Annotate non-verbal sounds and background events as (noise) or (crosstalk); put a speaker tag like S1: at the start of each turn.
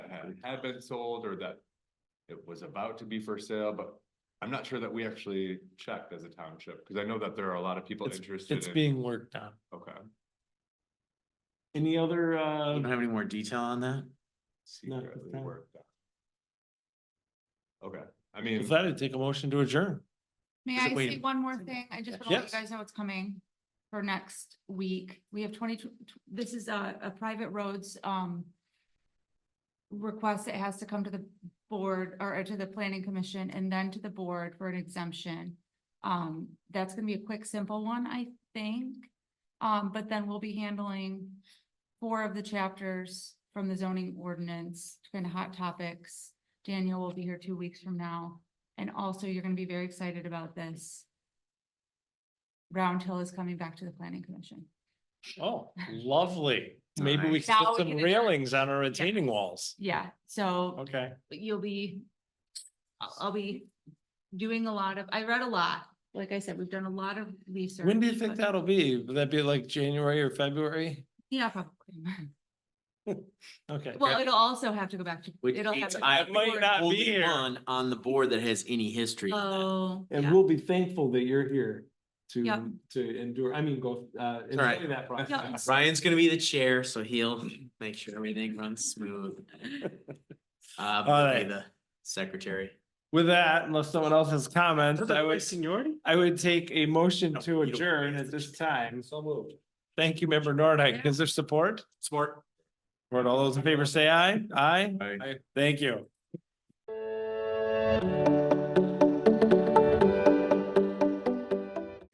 S1: had been sold or that it was about to be for sale, but I'm not sure that we actually checked as a township, because I know that there are a lot of people
S2: It's-
S1: interested in.
S2: It's being worked on.
S1: Okay.
S2: Any other,
S3: You
S2: uh,
S3: don't have any more detail on that?
S2: Not
S1: secretly
S2: the time.
S1: worked on. Okay, I mean,
S2: if that, I'd take a motion to adjourn.
S4: May
S3: Just
S4: I say
S3: waiting.
S4: one more thing? I just want to let
S2: Yes.
S4: you guys know what's coming for next week. We have twenty, this is a, a private roads, um, request that has to come to the board or to the planning commission and then to the board for an exemption. Um, that's gonna be a quick, simple one, I think. Um, but then we'll be handling four of the chapters from the zoning ordinance, kind of hot topics. Daniel will be here two weeks from now. And also, you're gonna be very excited about this. Round Hill is coming back to the planning commission.
S2: Oh, lovely. Maybe we
S3: Nice.
S2: can
S4: Now
S2: put some
S4: we can adjourn.
S2: railings on our retaining walls.
S4: Yeah, so
S2: Okay,
S4: you'll be, I'll, I'll be doing a lot of, I read a lot. Like I said, we've done a lot of research.
S2: when do you think
S4: but-
S2: that'll be? Would that be like January or February?
S4: Yeah, probably. (laughs)
S2: Okay.
S4: Well, it'll also have to go back to.
S3: Which
S4: it'll have
S3: means
S4: to-
S3: I
S2: might not be
S3: Only
S2: here.
S3: one on the board that has any history. on that.
S4: Oh,
S2: And
S4: yeah.
S2: we'll be thankful that you're here
S4: Yep.
S2: to, to endure, I mean, go, uh,
S3: right.
S2: enjoy that process.
S3: Ryan's gonna be the chair, so he'll make sure everything runs smooth.
S2: (laughs)
S3: Uh, but he'll be
S2: right.
S3: the secretary.
S2: With that, unless someone else has comments, I would,
S3: seniority?
S2: I would take a motion
S3: No,
S2: to
S3: you don't.
S2: adjourn at this time. So moved. Thank you, member Nordhook. Is there support?
S3: Smart.
S2: Support. all those in favor, say aye. Aye.
S1: I.
S2: Thank you.